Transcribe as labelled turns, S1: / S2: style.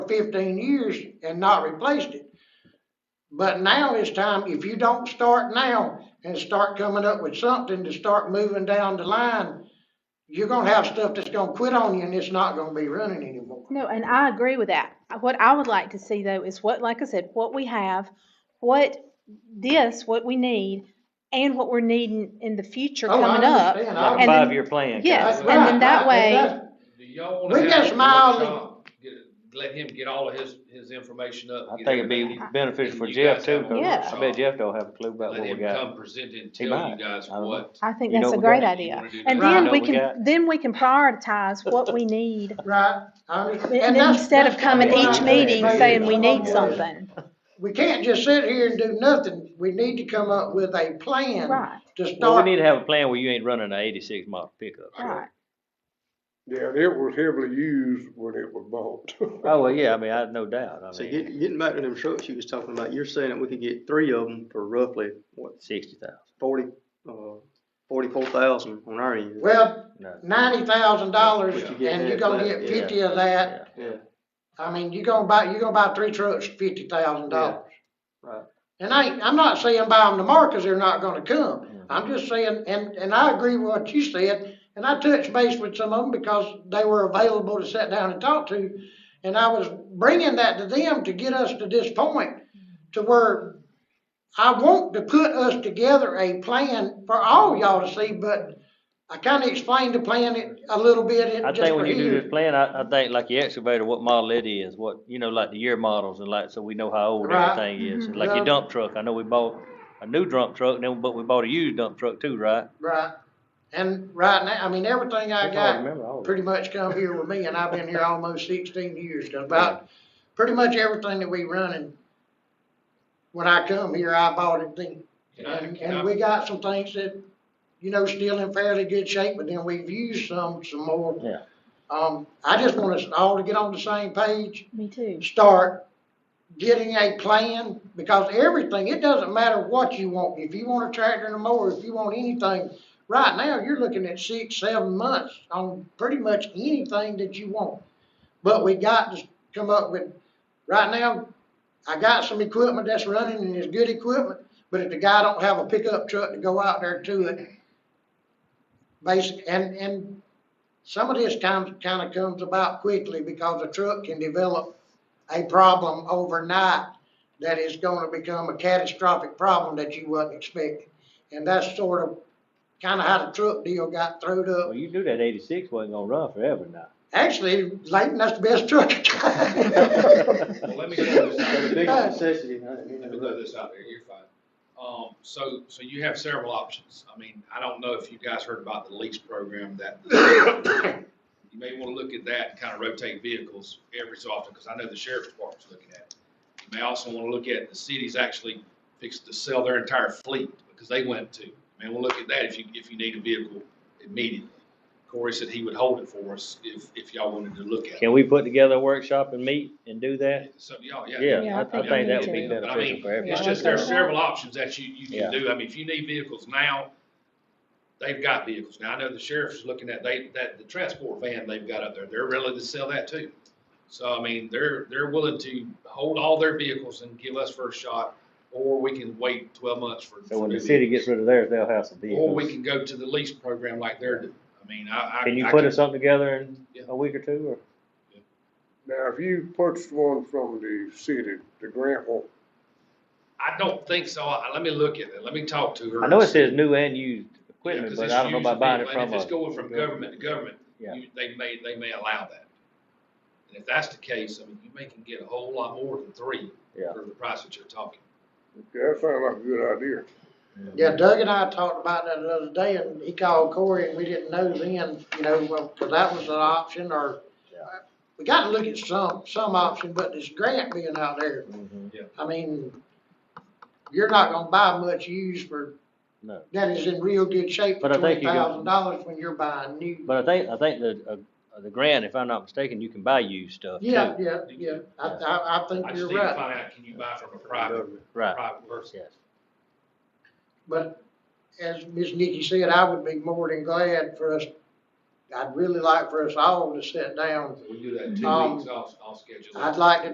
S1: fifteen years and not replaced it. But now is time, if you don't start now and start coming up with something to start moving down the line, you're gonna have stuff that's gonna quit on you and it's not gonna be running anymore.
S2: No, and I agree with that. What I would like to see though is what, like I said, what we have, what this, what we need, and what we're needing in the future
S1: Oh, I
S2: coming up.
S1: understand. I-
S3: Like a
S2: And then-
S3: five-year plan.
S2: Yes,
S1: That's
S2: and then
S1: right,
S2: that
S1: right,
S2: way-
S1: exactly.
S4: Do y'all
S1: We
S4: wanna
S1: got
S4: have a
S1: smiled.
S4: workshop, get, let him get all of his, his information up?
S3: I
S4: get
S3: think it'd be
S4: everything.
S3: beneficial for
S4: You
S3: Jeff
S4: guys
S3: too,
S4: have a
S3: 'cause
S2: Yeah.
S3: I bet Jeff don't have a clue about
S4: Let
S3: what we
S4: him
S3: got.
S4: come present and
S3: He
S4: tell you
S3: might.
S4: guys
S3: I don't know.
S4: what.
S2: I think
S3: You know
S2: that's a
S3: what we
S2: great
S3: got?
S2: idea.
S4: You wanna do
S2: And
S4: that.
S2: then
S3: Right.
S2: we
S3: What we
S2: can,
S3: got.
S2: then we can prioritize what we need.
S1: Right, I understand.
S2: And then
S1: that's-
S2: instead of
S1: that's
S2: coming
S1: what
S2: each
S1: I'm
S2: meeting
S1: saying.
S2: saying we need
S1: Yeah.
S2: something.
S1: We can't just sit here and do nothing. We need to come up with a plan
S2: Right,
S1: to
S3: Well, we
S1: start.
S3: need to have a plan where you ain't running an eighty-six model pickup.
S2: right.
S5: Yeah, and it was heavily used when it was bought.
S3: Oh, well, yeah, I mean, I, no doubt, I
S6: So
S3: mean,
S6: getting, getting back to them trucks you was talking about, you're saying that we could get three of them for roughly, what,
S3: sixty thousand,
S6: forty, uh, forty-four thousand on our end?
S1: Well,
S3: no.
S1: ninety thousand dollars
S6: But you get
S1: and you're
S6: half
S1: gonna get
S6: that, yeah.
S1: fifty of that.
S6: Yeah,
S1: I mean, you're gonna buy, you're gonna buy three trucks, fifty thousand dollars.
S6: right.
S1: And I, I'm not saying buy them tomorrow because they're not gonna come. I'm just saying, and, and I agree with what you said. And I touched base with some of them because they were available to sit down and talk to. And I was bringing that to them to get us to this point to where I want to put us together a plan for all y'all to see, but I kinda explained the plan it- a little bit in
S3: I
S1: just
S3: think
S1: for
S3: when you do
S1: you.
S3: this plan, I, I think like the excavator, what model it is, what, you know, like the year models and like, so we know how old
S1: Right.
S3: everything is.
S2: Mhm.
S3: Like
S1: Yeah.
S3: your dump truck, I know we bought a new dump truck, then, but we bought a used dump truck too, right?
S1: Right. And right now, I mean, everything I
S3: That's all
S1: got
S3: remember all of it.
S1: pretty much come here with me, and I've been here almost sixteen years, 'cause about, pretty much everything that we running, when I come here, I bought it then.
S4: Can I-
S1: And,
S4: can
S1: and
S4: I-
S1: we got some things that, you know, still in fairly good shape, but then we've used some, some more.
S3: Yeah.
S1: Um, I just want us all to get on the same page,
S2: Me too.
S1: start getting a plan, because everything, it doesn't matter what you want. If you want a tractor and a mower, if you want anything, right now, you're looking at six, seven months on pretty much anything that you want. But we got to come up with, right now, I got some equipment that's running and it's good equipment, but if the guy don't have a pickup truck to go out there to it, basic, and, and some of this kind, kind of comes about quickly because a truck can develop a problem overnight that is gonna become a catastrophic problem that you wasn't expecting. And that's sort of, kind of how the truck deal got throwed up
S3: Well, you knew that eighty-six wasn't gonna run forever now.
S1: Actually, Leighton, that's the best truck.
S4: Well, let me throw this out
S6: So
S4: there.
S6: the biggest necessity,
S4: Let me throw this out there, you're fine. Um, so, so you have several options. I mean, I don't know if you guys heard about the lease program that you may wanna look at that and kinda rotate vehicles every so often, cause I know the sheriff's department's looking at it. You may also wanna look at the cities actually fixed to sell their entire fleet, because they went to. May wanna look at that if you, if you need a vehicle immediately. Corey said he would hold it for us if, if y'all wanted to look at it.
S3: Can we put together a workshop and meet and do that?
S4: So, y'all, yeah.
S2: Yeah,
S3: Yeah,
S2: I
S3: I, I
S2: think
S3: think
S2: we
S3: that
S2: need
S3: would be
S2: to.
S4: But I mean,
S3: beneficial for everybody.
S4: It's
S2: Yeah, that's
S4: just, there are
S2: right.
S4: several options that you, you
S3: Yeah.
S4: can do. I mean, if you need vehicles now, they've got vehicles. Now, I know the sheriff's looking at, they, that, the transport van they've got up there, they're willing to sell that too. So, I mean, they're, they're willing to hold all their vehicles and give us first shot, or we can wait twelve months for.
S3: So when
S4: for
S3: the
S4: new
S3: city gets rid of theirs, they'll have some
S4: vehicles. Or we
S3: vehicles.
S4: can go to the lease program like they're doing. I mean, I, I.
S3: Can you
S4: I
S3: put
S4: could-
S3: us something together in
S4: Yeah.
S3: a week or two, or?
S5: Now, if you purchased one from the city, the grant won't,
S4: I don't think so. I- Let me look at it. Let me talk to her.
S3: I know it says new and used
S4: Yeah,
S3: equipment,
S4: 'cause
S3: but
S4: it's
S3: I don't know
S4: used
S3: about buying it
S4: vehicle, and
S3: from
S4: If it's
S3: a,
S4: going from government to government,
S3: Yeah.
S4: you- they may, they may allow that. And if that's the case, I mean, you may can get a whole lot more than three
S3: Yeah.
S4: for the price that you're talking.
S5: that sounds like a good idea.
S1: Yeah, Doug and I talked about that the other day, and he called Corey, and we didn't know then, you know, well, 'cause that was an option, or
S3: Yeah.
S1: we gotta look at some, some option, but this grant being out there,
S3: Mhm.
S1: I mean, you're not gonna buy much used for,
S3: No.
S1: that is in real good shape for
S3: But I think
S1: twenty
S3: you can-
S1: thousand dollars when you're buying new.
S3: But I think, I think the, uh, the grant, if I'm not mistaken, you can buy used stuff too.
S1: Yeah, yeah, yeah, I, I, I think
S4: I just
S1: you're
S4: need to
S1: right,
S4: find out, can you buy from a private,
S3: Right,
S4: private person?
S3: yes.
S1: but as Ms. Nikki said, I would be more than glad for us
S4: I'd really like for us all to sit down.
S1: We do that two
S4: Um,
S1: weeks off, off schedule.
S4: I'd like to